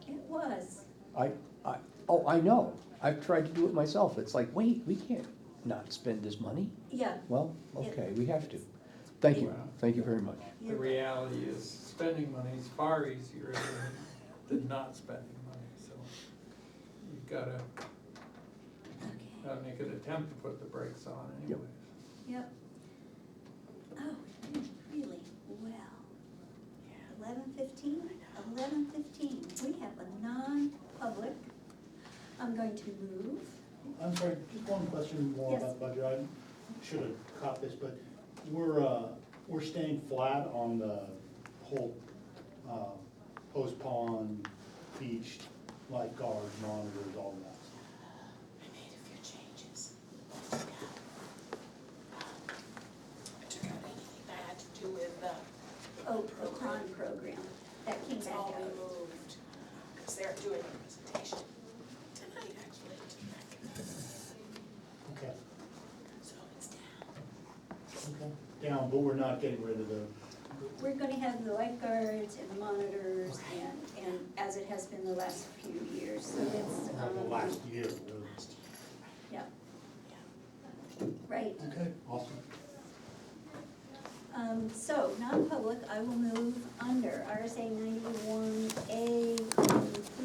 I, I, oh, I know, I've tried to do it myself, it's like, wait, we can't not spend this money. Yeah, Well, okay, we have to. Thank you, thank you very much. yeah, The reality is spending money is far easier than, than not spending money, so you've gotta, okay, Uh. gotta make an attempt to put the brakes on Yep. anyway. yep. Oh, we did really well. Eleven fifteen, eleven fifteen, we have a non-public. I'm going to move. I'm sorry, just one question more Yes. about budget, I should have caught this, but we're, uh, we're staying flat on the whole, uh, post pond, beach, lifeguard, monitors, all that. I made a few changes. I took out, I took out anything that had to do with the, Oh, Procon program, that came it's back all out. we moved, because they're doing a presentation tonight, actually, to rec. Okay, So it's down. okay. Down, but we're not getting rid of the, We're gonna have the lifeguards and monitors and, and as it has been the last few years, so it's, not the um, last year, really. yeah. Right, Okay, awesome. Um, so, non-public, I will move under RSA ninety-one A